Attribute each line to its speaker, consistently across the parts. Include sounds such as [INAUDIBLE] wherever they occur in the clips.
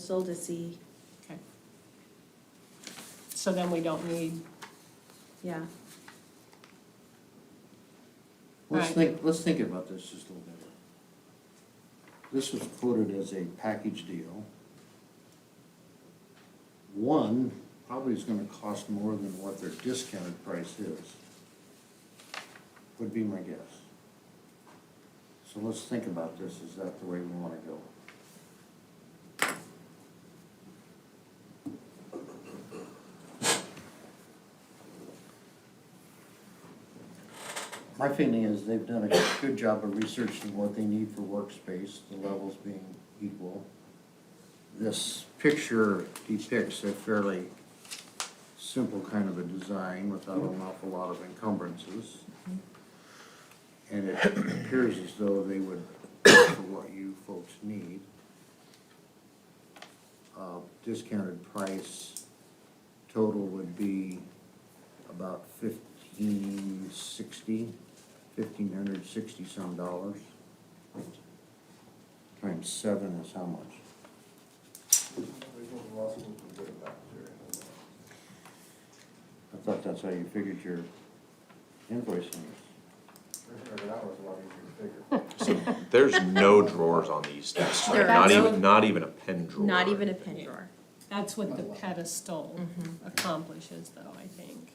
Speaker 1: Sold to see,
Speaker 2: Okay. So then we don't need,
Speaker 1: yeah,
Speaker 3: Let's
Speaker 2: Right.
Speaker 3: think, let's think about this just a little bit. This was quoted as a package deal. One probably is gonna cost more than what their discounted price is. Would be my guess. So let's think about this, is that the way we wanna go? My feeling is they've done a good job of researching what they need for workspace, the levels being equal. This picture depicts a fairly simple kind of a design without an awful lot of encumbrances. And it appears as though they would offer what you folks need. Uh, Discounted price total would be about fifteen sixty, fifteen hundred sixty some dollars. Times seven is how much? I thought that's how you figured your invoicing.
Speaker 4: So there's no drawers on these desks, right?
Speaker 1: There
Speaker 4: not
Speaker 1: are no-
Speaker 4: even, not even a pen drawer.
Speaker 1: not even a pen drawer.
Speaker 2: that's what the pedestal
Speaker 1: Mm-hmm.
Speaker 2: accomplishes though, I think,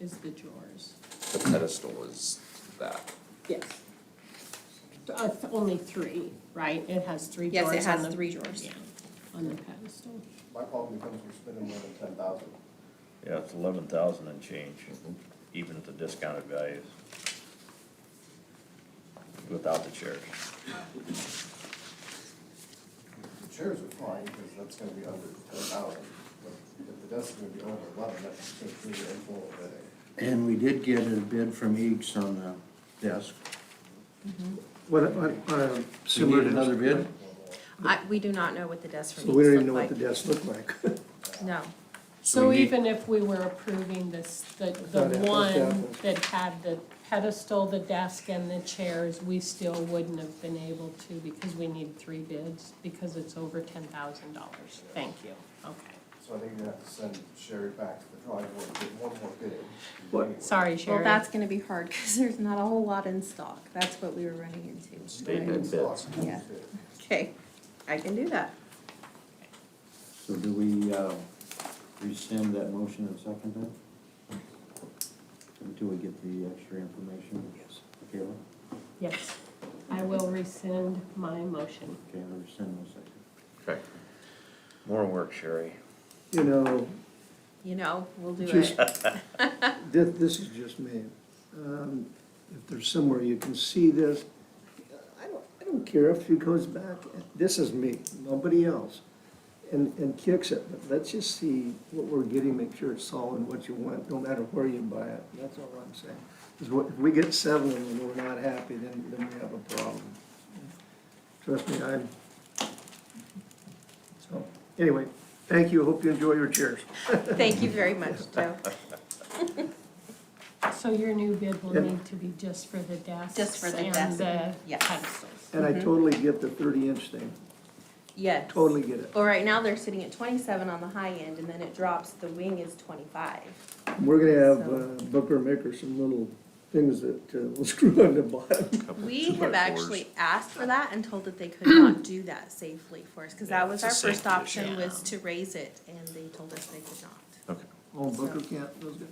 Speaker 2: is the drawers.
Speaker 4: The pedestal is that.
Speaker 2: Yes. Uh, th- only three, right? It has three
Speaker 1: Yes,
Speaker 2: drawers
Speaker 1: it
Speaker 2: on
Speaker 1: has
Speaker 2: the-
Speaker 1: three drawers.
Speaker 2: Yeah, on the pedestal.
Speaker 5: [LAUGHS] My problem becomes we're spending more than ten thousand.
Speaker 6: Yeah, it's eleven thousand and change, even at the discounted values. Without the chairs.
Speaker 5: The chairs are fine, because that's gonna be under ten thousand, but if the desk's gonna be over eleven, that's gonna be an full bidding.
Speaker 3: And we did get a bid from Eeks on the desk.
Speaker 7: What, what, uh,
Speaker 3: Do you
Speaker 7: similar
Speaker 3: need
Speaker 7: to.
Speaker 3: another bid?
Speaker 1: I, we do not know what the desks from
Speaker 7: So we don't
Speaker 1: Eames
Speaker 7: even know
Speaker 1: look
Speaker 7: what the
Speaker 1: like.
Speaker 7: desks look like. [LAUGHS]
Speaker 1: No,
Speaker 2: So
Speaker 3: we need-
Speaker 2: even if we were approving this, the, the
Speaker 7: thought it-
Speaker 2: one
Speaker 7: okay.
Speaker 2: that had the pedestal, the desk and the chairs, we still wouldn't have been able to because we need three bids because it's over ten thousand dollars. Thank you, okay.
Speaker 5: So I think you have to send Sherry back to the drawing board, get one more bidding.
Speaker 7: What?
Speaker 2: Sorry, Sherry.
Speaker 1: well, that's gonna be hard, [LAUGHS] cause there's not a whole lot in stock, that's what we were running into.
Speaker 4: They did bids.
Speaker 1: Yeah. Okay, I can do that.
Speaker 3: So do we, uh, rescind that motion and second it? Until we get the extra information? Yes. Kayla?
Speaker 2: Yes, I will rescind my motion.
Speaker 3: Kayla, rescind the second.
Speaker 4: Okay.
Speaker 6: More work, Sherry.
Speaker 7: You know,
Speaker 1: You know, we'll do
Speaker 7: Just-
Speaker 1: it.
Speaker 7: this, this is just me. Um, If there's somewhere you can see this, I don't, I don't care if he goes back, this is me, nobody else, and, and kicks it, but let's just see what we're getting, make sure it's solid, what you want, no matter where you buy it, that's all I'm saying. 'Cause what- if we get seven and we're not happy, then, then we have a problem. Trust me, I'm, so, anyway, thank you, hope you enjoy your chairs.
Speaker 1: Thank you very much,
Speaker 7: [LAUGHS]
Speaker 1: Joe,
Speaker 2: So your new bid will
Speaker 7: Yeah.
Speaker 2: need to be just for the desks
Speaker 1: Just for the
Speaker 2: and
Speaker 1: desk,
Speaker 2: the
Speaker 1: yes.
Speaker 2: pedestals.
Speaker 7: And I totally get the thirty-inch thing,
Speaker 1: yes.
Speaker 7: totally get it.
Speaker 1: Well, right now they're sitting at twenty-seven on the high end, and then it drops, the wing is twenty-five.
Speaker 7: We're gonna have uh, Booker make her some little things that uh, [LAUGHS] will screw on the bottom.
Speaker 4: Couple
Speaker 1: We
Speaker 4: two by
Speaker 1: have
Speaker 4: fours.
Speaker 1: actually asked for that and told that they could not do that safely for us, cause
Speaker 4: Yeah,
Speaker 1: that was
Speaker 4: it's a
Speaker 1: our first
Speaker 4: safety
Speaker 1: option
Speaker 4: issue.
Speaker 1: was to raise it, and they told us they could not.
Speaker 4: Okay.
Speaker 7: Oh, Booker can't, those guys?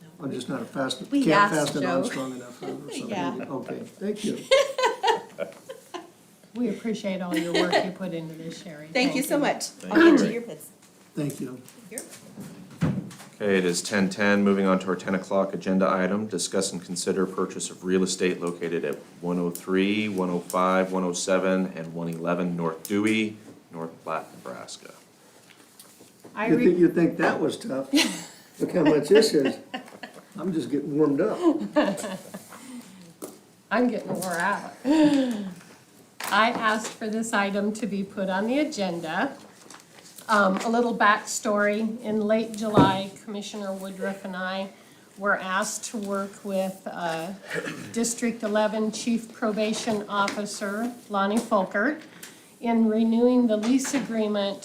Speaker 1: No.
Speaker 7: I'm just not a fast,
Speaker 1: We
Speaker 7: can't
Speaker 1: asked
Speaker 7: fasten on
Speaker 1: Joe.
Speaker 7: strong enough or something.
Speaker 1: Yeah.
Speaker 7: Okay, thank you.
Speaker 2: We appreciate all your work you put into this, Sherry.
Speaker 1: Thank you so much.
Speaker 4: Thank
Speaker 1: I'll
Speaker 4: you.
Speaker 1: get you your bids.
Speaker 7: Thank you.
Speaker 1: Here.
Speaker 4: Okay, it is ten ten, moving on to our ten o'clock agenda item, discuss and consider purchase of real estate located at 103, 105, 107, and one eleven North Dewey, North Platte, Nebraska.
Speaker 2: I
Speaker 7: You think,
Speaker 2: re-
Speaker 7: you think that was tough? Look how much this is. I'm just getting warmed up.
Speaker 2: I'm getting wore out. I asked for this item to be put on the agenda. Um, a little backstory, in late July, Commissioner Woodruff and I were asked to work with, uh, District Eleven Chief Probation Officer Lonnie Folkert in renewing the lease agreement